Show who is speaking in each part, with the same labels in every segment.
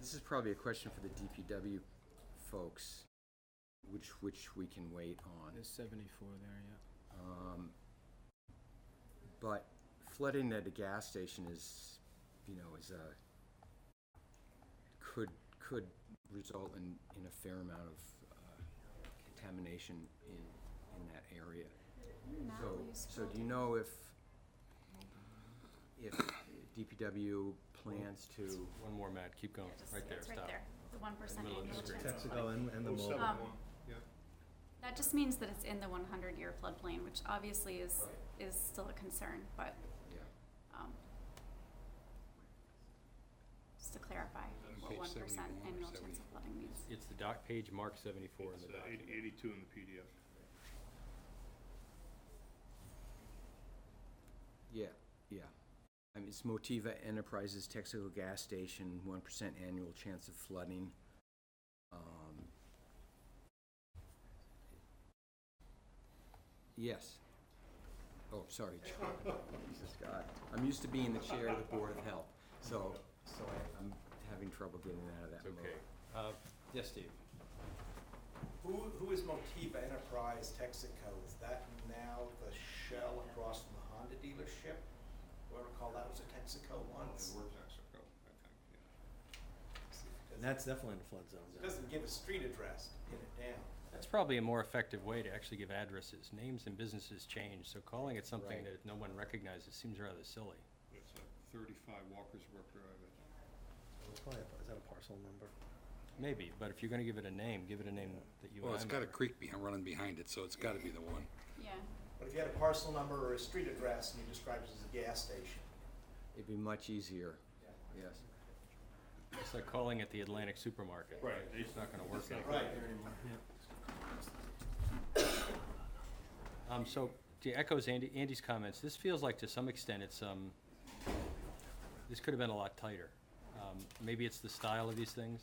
Speaker 1: this is probably a question for the DPW folks, which, which we can wait on.
Speaker 2: There's seventy-four there, yeah.
Speaker 1: Um, But flooding at a gas station is, you know, is a, could, could result in, in a fair amount of uh, contamination in, in that area. So, so do you know if, if DPW plans to,
Speaker 3: One more, Matt, keep going, right there,
Speaker 4: It's right
Speaker 3: stop.
Speaker 4: there, the one percent
Speaker 3: middle of the
Speaker 4: annual
Speaker 3: screen.
Speaker 4: chance.
Speaker 5: Texaco and, and the
Speaker 6: Oh,
Speaker 5: mold.
Speaker 6: seven
Speaker 4: Um,
Speaker 6: one, yeah.
Speaker 4: That just means that it's in the one hundred year floodplain, which obviously is, is still a concern, but,
Speaker 1: yeah,
Speaker 4: um, just to clarify what
Speaker 3: Page
Speaker 4: one percent
Speaker 3: 71 or
Speaker 4: annual chance of flooding means.
Speaker 3: It's the doc, page mark seventy-four in
Speaker 6: It's
Speaker 3: the
Speaker 6: uh, eight-
Speaker 3: document.
Speaker 6: 82 in the PDF.
Speaker 1: yeah, yeah. I mean, it's Motiva Enterprises, Texaco Gas Station, one percent annual chance of flooding. Um, Yes. Oh, sorry. Jesus God, I'm used to being the chair of the Board of Health, so, so I- I'm having trouble getting out of that
Speaker 3: It's
Speaker 1: mode.
Speaker 3: okay. Uh, yes, Steve?
Speaker 7: Who, who is Motiva Enterprise Texaco? Is that now the shell across from the Honda dealership? Do I recall that was a Texaco once?
Speaker 6: Texaco, I think, yeah.
Speaker 5: And that's definitely in the flood zone.
Speaker 7: It doesn't give a street address to pin it down.
Speaker 3: That's probably a more effective way to actually give addresses. Names and businesses change, so calling it something
Speaker 1: Right.
Speaker 3: that no one recognizes seems rather silly.
Speaker 6: It's uh, 35 Walker's Brook Drive, I think.
Speaker 5: It's probably a- Is that a parcel number?
Speaker 3: Maybe, but if you're gonna give it a name, give it a name that you and I
Speaker 8: Well, it's got a
Speaker 3: remember.
Speaker 8: creek behind, running behind it, so it's gotta be the one.
Speaker 4: Yeah,
Speaker 7: But if you had a parcel number or a street address and you described it as a gas station,
Speaker 1: It'd be much easier, yes.
Speaker 3: It's like calling it the Atlantic Supermarket.
Speaker 6: Right.
Speaker 3: It's not gonna work anymore.
Speaker 7: right there anymore.
Speaker 3: Um, so, to echoes Andy, Andy's comments, this feels like to some extent it's, um, this could have been a lot tighter. Um, maybe it's the style of these things.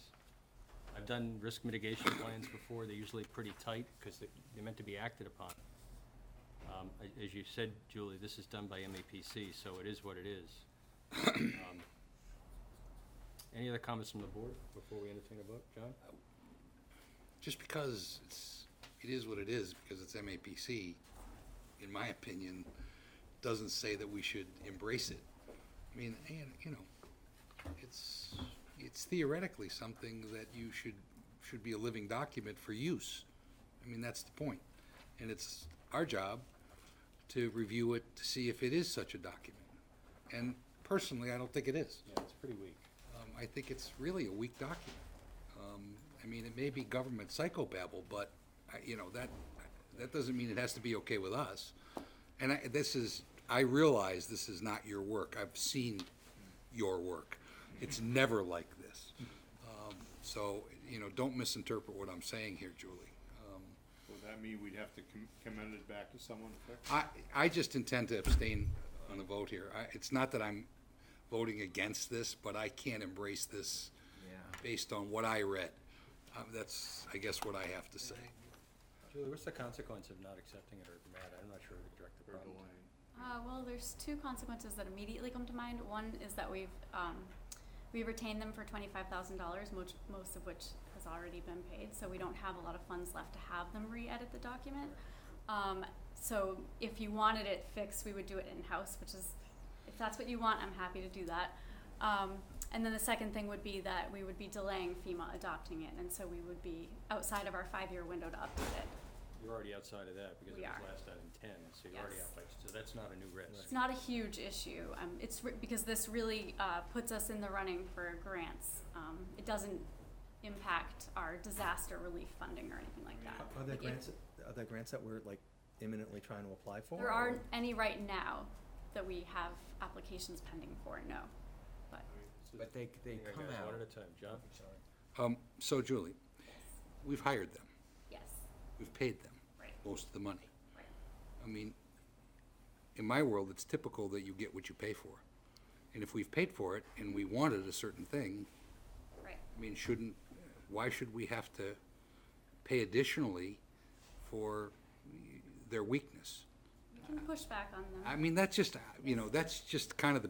Speaker 3: I've done risk mitigation plans before, they're usually pretty tight, because they, they're meant to be acted upon. Um, a- as you said, Julie, this is done by MAPC, so it is what it is. Um, Any other comments from the board before we entertain a vote, John?
Speaker 8: Just because it's, it is what it is, because it's MAPC, in my opinion, doesn't say that we should embrace it. I mean, and, you know, it's, it's theoretically something that you should, should be a living document for use. I mean, that's the point. And it's our job to review it, to see if it is such a document. And personally, I don't think it is.
Speaker 3: Yeah, it's pretty weak.
Speaker 8: Um, I think it's really a weak document. Um, I mean, it may be government psychobabble, but, I- you know, that, that doesn't mean it has to be okay with us. And I, this is, I realize this is not your work. I've seen your work. It's never like this. Um, So, you know, don't misinterpret what I'm saying here, Julie. Um,
Speaker 6: Would that mean we'd have to com- commend it back to someone? Tex?
Speaker 8: I, I just intend to abstain on the vote here. I, it's not that I'm voting against this, but I can't embrace this
Speaker 1: Yeah.
Speaker 8: based on what I read. Um, that's, I guess, what I have to say.
Speaker 3: Julie, what's the consequence of not accepting it, or Matt, I'm not sure who to direct the problem to.
Speaker 4: uh, well, there's two consequences that immediately come to mind. One is that we've, um, we retained them for twenty-five thousand dollars, most, most of which has already been paid, so we don't have a lot of funds left to have them re-edit the document. Um, so if you wanted it fixed, we would do it in-house, which is, if that's what you want, I'm happy to do that. Um, and then the second thing would be that we would be delaying FEMA adopting it, and so we would be outside of our five-year window to update it.
Speaker 3: You're already outside of that because it
Speaker 4: We
Speaker 3: was
Speaker 4: are.
Speaker 3: last out in ten, so you're already
Speaker 4: Yes.
Speaker 3: out by, so that's not a new risk.
Speaker 4: It's not a huge issue. Um, it's re- because this really uh, puts us in the running for grants. Um, it doesn't impact our disaster relief funding or anything like that.
Speaker 5: Are there
Speaker 4: Like, if-
Speaker 5: grants, are there grants that we're like imminently trying to apply for?
Speaker 4: There
Speaker 5: or-
Speaker 4: aren't any right now that we have applications pending for. No, but
Speaker 1: But they, they
Speaker 3: Yeah,
Speaker 1: come
Speaker 3: guys,
Speaker 1: out.
Speaker 3: One at a time, John.
Speaker 8: Um, so Julie, we've hired them,
Speaker 4: yes,
Speaker 8: we've paid them
Speaker 4: right,
Speaker 8: most of the money.
Speaker 4: right.
Speaker 8: I mean, in my world, it's typical that you get what you pay for. And if we've paid for it and we wanted a certain thing,
Speaker 4: Right.
Speaker 8: I mean, shouldn't, why should we have to pay additionally for their weakness?
Speaker 4: We can push back on them.
Speaker 8: I mean, that's just, you know, that's just kind of the